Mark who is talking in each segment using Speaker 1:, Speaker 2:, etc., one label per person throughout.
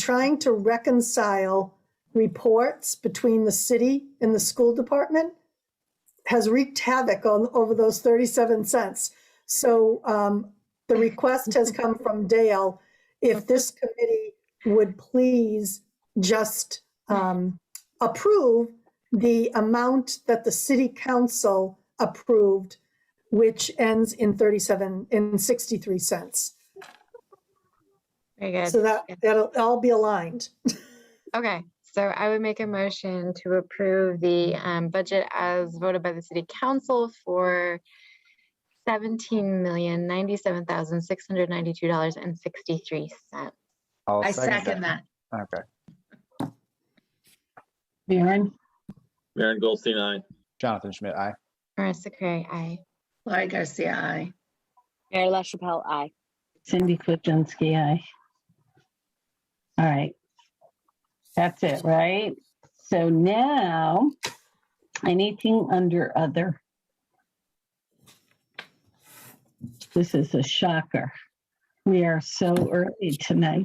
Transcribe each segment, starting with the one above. Speaker 1: trying to reconcile reports between the city and the school department has wreaked havoc on, over those 37 cents. So um, the request has come from Dale, if this committee would please just um, approve the amount that the city council approved, which ends in 37, in 63 cents.
Speaker 2: Very good.
Speaker 1: So that, that'll all be aligned.
Speaker 2: Okay, so I would make a motion to approve the um, budget as voted by the city council for seventeen million ninety-seven thousand six hundred ninety-two dollars and sixty-three cents.
Speaker 3: I'll
Speaker 4: I second that.
Speaker 3: Okay.
Speaker 5: Maren,
Speaker 6: Maren Goldstein, aye.
Speaker 3: Jonathan Schmidt, aye.
Speaker 2: Marissa Curry, aye.
Speaker 4: Laurie Garcia, aye.
Speaker 7: Mayor LaChapelle, aye.
Speaker 5: Cindy Kuzensky, aye. All right. That's it, right? So now, anything under other? This is a shocker. We are so early tonight.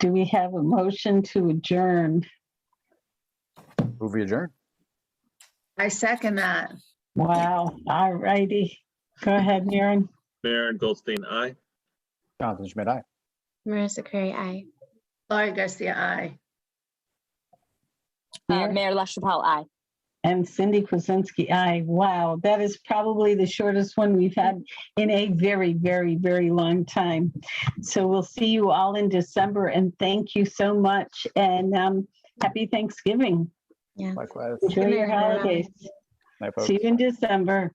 Speaker 5: Do we have a motion to adjourn?
Speaker 3: Move adjourned.
Speaker 4: I second that.
Speaker 5: Wow, all righty. Go ahead, Maren.
Speaker 6: Maren Goldstein, aye.
Speaker 3: Jonathan Schmidt, aye.
Speaker 2: Marissa Curry, aye.
Speaker 4: Laurie Garcia, aye.
Speaker 7: Uh,
Speaker 5: Mayor?
Speaker 7: Mayor LaChapelle, aye.
Speaker 5: And Cindy Kuzensky, aye. Wow, that is probably the shortest one we've had in a very, very, very long time. So we'll see you all in December and thank you so much and um, happy Thanksgiving.
Speaker 3: Likewise.
Speaker 5: Enjoy your
Speaker 2: Good night, everyone.
Speaker 5: holidays.
Speaker 3: Night, folks.
Speaker 5: See you in December.